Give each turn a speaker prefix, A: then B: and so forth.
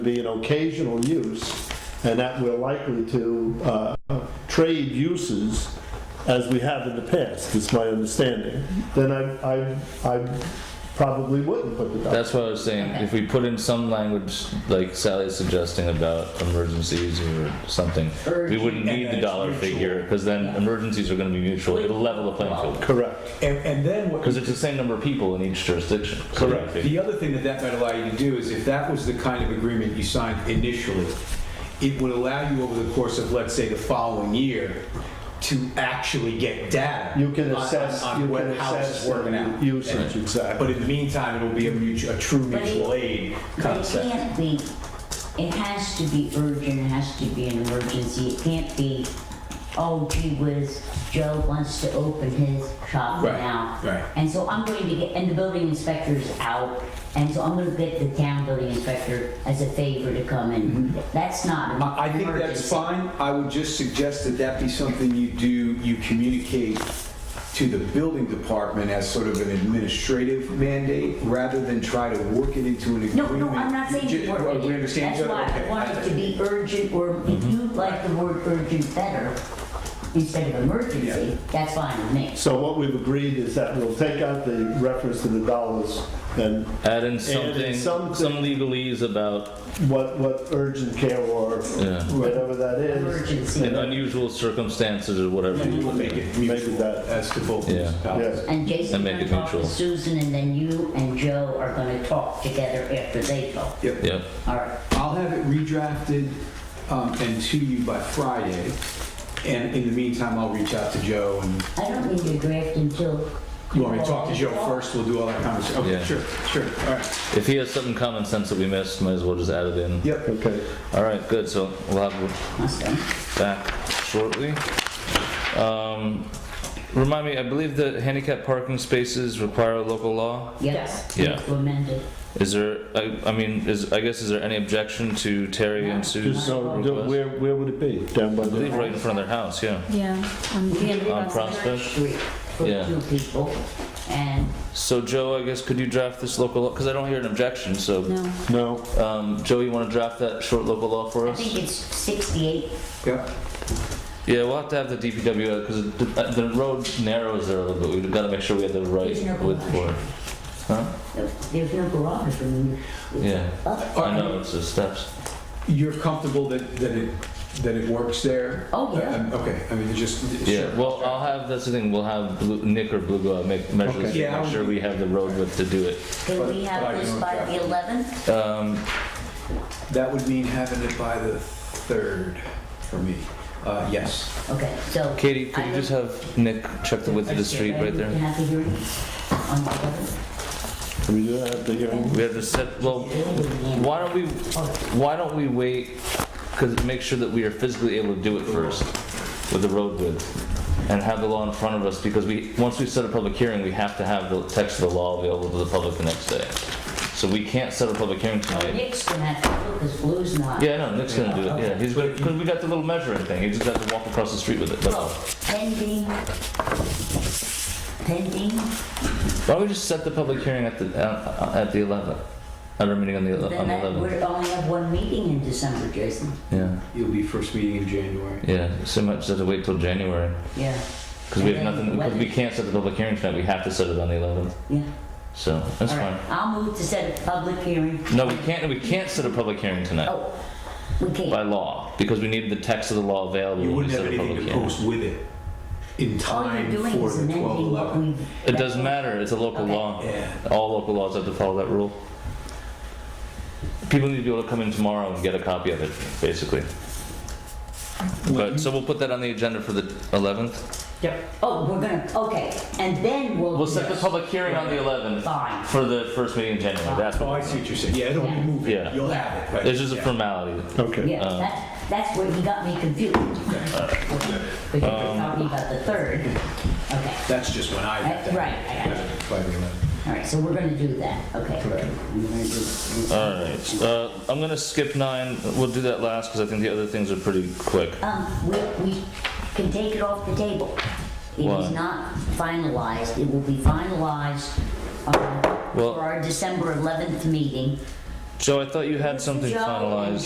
A: be an occasional use, and that we're likely to uh, trade uses as we have in the past, is my understanding, then I, I, I probably wouldn't put the dog.
B: That's what I was saying, if we put in some language, like Sally is suggesting about emergencies or something, we wouldn't
C: Urgent and
B: need the
C: it's
B: dollar
C: mutual.
B: figure, because then emergencies are gonna be mutual, it'll level the playing field.
A: Correct.
C: And, and then what,
B: Because it's the same number of people in each jurisdiction. so
A: Correct.
B: if-
C: the other thing that that might allow you to do is if that was the kind of agreement you signed initially, it would allow you over the course of, let's say, the following year, to actually get data.
A: You can
C: on- on-
A: assess,
C: on
A: you
C: what-
A: can
C: how this is
A: assess
C: working
A: the
C: out.
A: usage,
C: But
A: exactly.
C: in the meantime, it'll be a mutual, a true
D: But it-
C: mutual aid
D: But it
C: concept.
D: can't be, it has to be urgent, it has to be an emergency, it can't be, oh gee whiz, Joe wants to open his shop
C: Right,
D: now.
C: right.
D: And so I'm going to get, and the building inspector's out, and so I'm gonna get the town building inspector as a favor to come in. That's not an
C: Mm-hmm. I I think that's
D: emergency.
C: fine. I would just suggest that that be something you do, you communicate to the building department as sort of an administrative mandate, rather than try to work it into an
D: No,
C: agreement.
D: no, I'm not saying
C: You
D: the
C: ju-
D: word.
C: well,
D: urgent.
C: We understand each other?
D: That's
C: Okay. Mm-hmm.
D: why I want it to be urgent, or if you like the word urgent better, instead of emergency, that's fine with me.
A: So what we've agreed is that we'll take out the reference to the dollars and
B: Add in something,
A: something-
B: some legalese about
A: what, what urgent care or
B: Yeah.
A: whatever that is.
D: Emergency.
B: in unusual circumstances or whatever.
A: Mm-hmm.
C: And we'll make it
A: Maybe
C: mutual
A: that-
C: as to both
B: Yeah.
C: municipalities.
A: Yes,
D: And Jason
B: And make
D: gonna
B: it
D: talk to
B: neutral.
D: Susan, and then you and Joe are gonna talk together after they talk.
C: Yep.
B: Yep,
D: All right,
C: I'll have it redrafted um, and to you by Friday. And in the meantime, I'll reach out to Joe and
D: I don't need to draft until.
C: you want me to talk to Joe first? We'll do all that conversation. Okay,
B: Yeah.
C: sure, sure. All right.
B: if he has something common sense that we missed, might as well just add it in.
C: Yep.
A: okay.
B: All right, good, so we'll have
D: Awesome.
B: back shortly. Um, Remind me, I believe that handicap parking spaces require a local law?
D: Yes.
B: Yeah.
D: it's amended.
B: Is there, I, I mean, is, I guess, is there any objection to Terry and Sue's
A: Just so, do-
B: request?
A: where, where would it be? Down by
B: I believe
A: the,
B: right in front of their house, yeah.
E: Yeah, on
D: We
E: the
D: live
B: On
D: on
B: Prospect?
D: Church Street for
B: Yeah.
D: two people, and
B: So Joe, I guess, could you draft this local law? Because I don't hear an objection, so,
E: no.
A: no,
B: um, Joe, you want to draft that short local law for
D: I
B: us?
D: think it's sixty-eight.
C: Yep.
B: Yeah, we'll have to have the DPW, because the, uh, the road narrows there a little bit, we've got to make sure we have the right
D: There's no
B: width for it. Huh?
D: There's no garage room.
B: Yeah,
C: All
B: I
C: right.
B: know, it's the steps.
C: You're comfortable that, that it, that it works there?
D: Oh, yeah.
C: Um, Okay, I mean, it just.
B: Yeah, well, I'll have, that's the thing, we'll have Blue- Nick or Blue go out, make measures,
C: Okay.
B: to
C: Yeah,
B: make
C: I'll-
B: sure we have the road width to do it.
D: Can we
C: But-
D: have
C: but I
D: this
C: don't
D: by
C: have-
D: the eleventh?
B: Um,
C: That would mean having it by the third for me. Uh, yes.
D: Okay, so.
B: Katie, could you
D: I-
B: just have Nick check the width of the street right
D: We
B: there?
D: Can have the hearing on the eleventh?
A: we do have the hearing.
B: We have to set, well, why don't we, why don't we wait, because make sure that we are physically able to do it first with the road width and have the law in front of us, because we, once we set a public hearing, we have to have the text of the law available to the public the next day. So we can't set a public hearing tonight.
D: Nick's gonna have to look, because Blue's not.
B: Yeah, no, Nick's gonna do it, yeah, he's gonna, cause we got the little measuring thing, he just has to walk across the street with it, that's all.
D: Well, pending, pending,
B: Why don't we just set the public hearing at the, uh, at the eleventh, at our meeting on the, ele-
D: then
B: on the
D: that,
B: eleventh?
D: we only have one meeting in December, Jason.
B: Yeah,
C: You'll be first meeting in January.
B: yeah, so much have to wait till January,
D: Yeah,
B: cause we
D: And
B: have
D: then
B: nothing, cause we
D: weather.
B: can't set the public hearing tonight, we have to set it on the eleventh,
D: yeah.
B: so, that's
D: All
B: fine.
D: right, I'll move to set a public hearing.
B: No, we can't, we can't set a public hearing tonight,
D: Oh, we
B: by
D: can't.
B: law, because we need the text of the law available
C: You
B: when we
C: wouldn't
B: set
C: have
B: Mm, a
C: anything
B: public
C: to
B: hearing.
C: post with it in
D: All you're
C: time
D: doing
C: for
D: is
C: the 12,
D: amending what
C: 11.
D: we.
B: It doesn't matter, it's a local
D: Okay.
B: law.
C: Yeah.
B: All local laws have to follow that rule. People need to be able to come in tomorrow and get a copy of it, basically. But, so we'll put that on the agenda for the 11th?
D: Oh, we're gonna, okay, and then we'll.
B: We'll set the public hearing on the 11th
D: Fine,
B: for the first meeting in January, that's
C: Oh,
B: what.
C: I see what you're saying. Yeah, it'll be
D: Yeah.
C: moving.
B: Yeah.
C: You'll have it. right.
B: It's just a
C: Yeah.
B: formality.
A: Okay.
D: yeah,
B: Um,
D: that, that's where he got me confused. Because you're
B: Um,
D: talking about the third. Okay,
C: That's just when I got that.
D: Right, I got
C: By the 11.
D: all right, so we're gonna do that, okay. We're gonna do-
B: Alright, uh, I'm gonna skip nine, we'll do that last, because I think the other things are pretty quick.
D: Um, we, we can take it off the table. It
B: Why?
D: is not finalized, it will be finalized, um,
B: Well-
D: for our December 11th meeting
B: Joe, I thought you had something
D: Joe,
B: finalized.